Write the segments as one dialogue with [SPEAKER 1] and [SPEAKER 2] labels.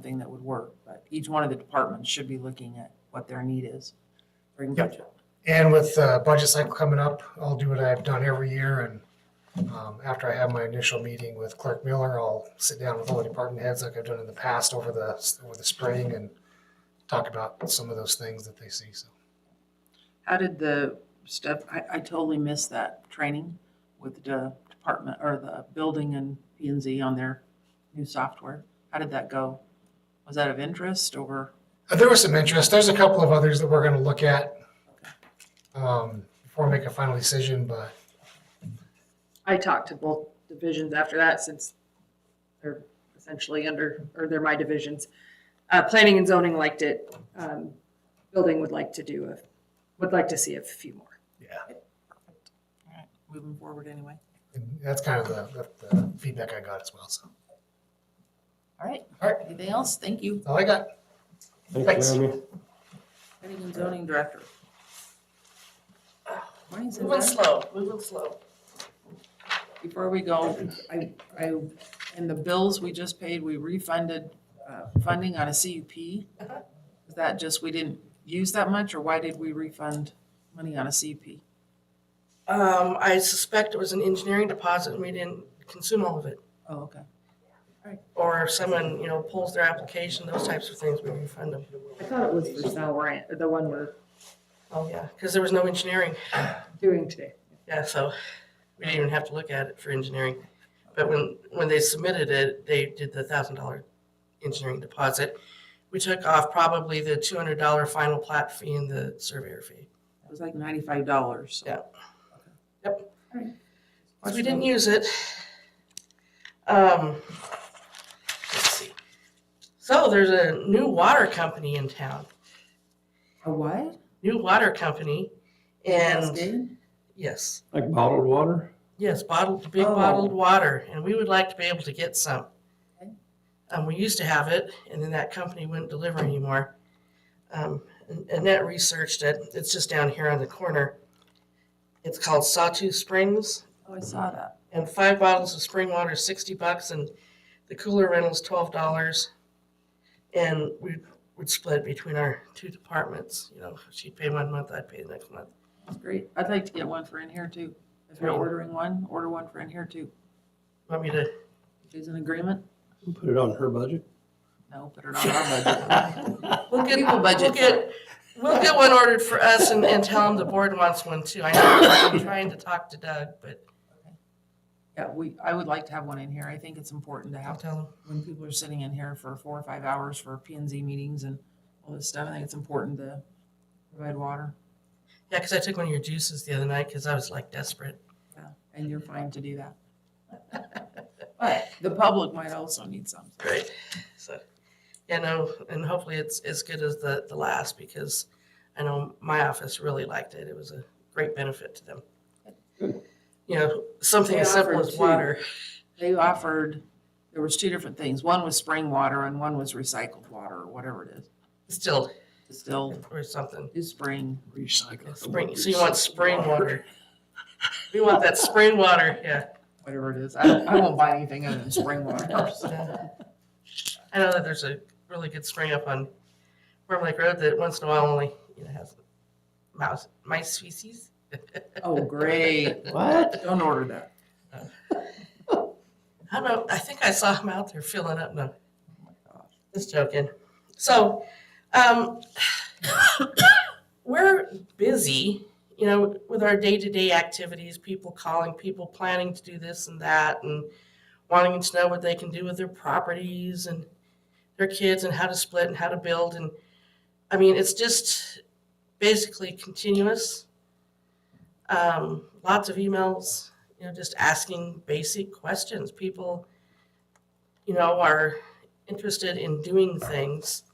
[SPEAKER 1] something that would work, but each one of the departments should be looking at what their need is. during
[SPEAKER 2] Yep.
[SPEAKER 1] budget.
[SPEAKER 2] And with the budget cycle coming up, I'll do what I've done every year and um, after I have my initial meeting with Clerk Miller, I'll sit down with all the department heads like I've done in the past over the, over the spring and talk about some of those things that they see, so.
[SPEAKER 1] How did the stuff, I, I totally missed that training with the department or the building and P and Z on their new software. How did that go? Was that of interest or?
[SPEAKER 2] Uh, There was some interest. There's a couple of others that we're gonna look at um, before we make a final decision, but
[SPEAKER 3] I talked to both divisions after that since they're essentially under, or they're my divisions. Uh, planning and zoning liked it. Um, building would like to do a, would like to see a few more.
[SPEAKER 2] yeah,
[SPEAKER 1] All right, Moving forward anyway.
[SPEAKER 2] and that's kind of the, the- the feedback I got as well, so.
[SPEAKER 1] All right.
[SPEAKER 2] All right.
[SPEAKER 1] Anything else? Thank you.
[SPEAKER 2] That's All I got. Thanks.
[SPEAKER 4] Thanks, Jeremy.
[SPEAKER 1] Planning and zoning director. Morning's in
[SPEAKER 5] Moving
[SPEAKER 1] there.
[SPEAKER 5] slow, moving slow.
[SPEAKER 1] Before we go, I, I, in the bills we just paid, we refunded uh, funding on a CUP.
[SPEAKER 5] Uh-huh.
[SPEAKER 1] Is that just, we didn't use that much, or why did we refund money on a CUP?
[SPEAKER 5] Um, I suspect it was an engineering deposit and we didn't consume all of it.
[SPEAKER 1] Oh, okay.
[SPEAKER 5] Or if someone, you know, pulls their application, those types of things, we refund them.
[SPEAKER 3] I thought it was for Valorant, the one we're
[SPEAKER 5] Oh, yeah, because there was no engineering.
[SPEAKER 3] doing today.
[SPEAKER 5] Yeah, so we didn't even have to look at it for engineering. But when, when they submitted it, they did the thousand dollar engineering deposit. We took off probably the two hundred dollar final plat fee and the surveyor fee.
[SPEAKER 1] It was like ninety-five dollars.
[SPEAKER 5] Yeah. Yep.
[SPEAKER 1] Alright.
[SPEAKER 5] Because we didn't use it. Um, let's see. So there's a new water company in town,
[SPEAKER 1] A what?
[SPEAKER 5] new water company. And
[SPEAKER 1] Cascade?
[SPEAKER 5] yes,
[SPEAKER 4] Like bottled water?
[SPEAKER 5] yes, bottled, big
[SPEAKER 1] Oh.
[SPEAKER 5] bottled water. And we would like to be able to get some.
[SPEAKER 1] Okay.
[SPEAKER 5] Um, we used to have it and then that company wouldn't deliver anymore. Um, and Annette researched it. It's just down here on the corner. It's called Sawtooth Springs.
[SPEAKER 1] Oh, I saw that.
[SPEAKER 5] and five bottles of spring water is sixty bucks, and the cooler rental's twelve dollars. And we would split between our two departments. You know, she'd pay one month, I'd pay the next month.
[SPEAKER 1] That's great. I'd like to get one for in here too. If you're
[SPEAKER 5] Right.
[SPEAKER 1] ordering one, order one for in here too.
[SPEAKER 5] Want me to?
[SPEAKER 1] If there's an agreement,
[SPEAKER 4] Put it on her budget?
[SPEAKER 1] no, put it on our budget.
[SPEAKER 5] We'll get,
[SPEAKER 1] People budget
[SPEAKER 5] we'll
[SPEAKER 1] for
[SPEAKER 5] get, we'll get one ordered for us and, and tell them the board wants one too. I know, I'm trying to talk to Doug, but
[SPEAKER 1] Yeah, we, I would like to have one in here. I think it's important to
[SPEAKER 5] I'll
[SPEAKER 1] have
[SPEAKER 5] tell him.
[SPEAKER 1] when people are sitting in here for four or five hours for P and Z meetings and all this stuff, I think it's important to provide water.
[SPEAKER 5] Yeah, because I took one of your juices the other night because I was like desperate.
[SPEAKER 1] Yeah, And you're fine to do that. But the public might also need some.
[SPEAKER 5] Right. So, yeah, no, and hopefully it's as good as the, the last because I know my office really liked it. It was a great benefit to them. You know, something as simple as water.
[SPEAKER 1] They offered, there was two different things. One was spring water and one was recycled water or whatever it is.
[SPEAKER 5] Still,
[SPEAKER 1] Distilled,
[SPEAKER 5] or something.
[SPEAKER 1] is spring.
[SPEAKER 4] Recycle.
[SPEAKER 5] Spring, so you want spring water. We want that spring water, yeah.
[SPEAKER 1] whatever it is. I, don't- I won't buy anything other than spring water. so.
[SPEAKER 5] I know that there's a really good spring up on Worm Lake Road that once in a while only, you know, has mouse, mice species.
[SPEAKER 1] Oh, great.
[SPEAKER 4] What?
[SPEAKER 1] Don't order that.
[SPEAKER 5] I don't know, I think I saw him out there filling up, no,
[SPEAKER 1] Oh my gosh.
[SPEAKER 5] Just joking. So, um, we're busy, you know, with our day-to-day activities, people calling, people planning to do this and that, and wanting to know what they can do with their properties and their kids and how to split and how to build. And I mean, it's just basically continuous. Um, lots of emails, you know, just asking basic questions. People, you know, are interested in doing things.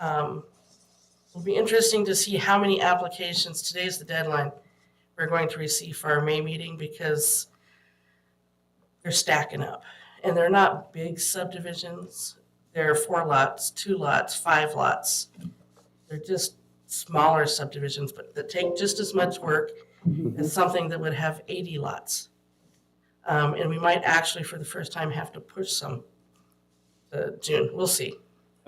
[SPEAKER 5] Um, It'll be interesting to see how many applications, today's the deadline, we're going to receive for our May meeting because they're stacking up. And they're not big subdivisions. They're four lots, two lots, five lots. They're just smaller subdivisions, but that take just as much work as something that would have 80 lots. Um, And we might actually, for the first time, have to push some to June. We'll see.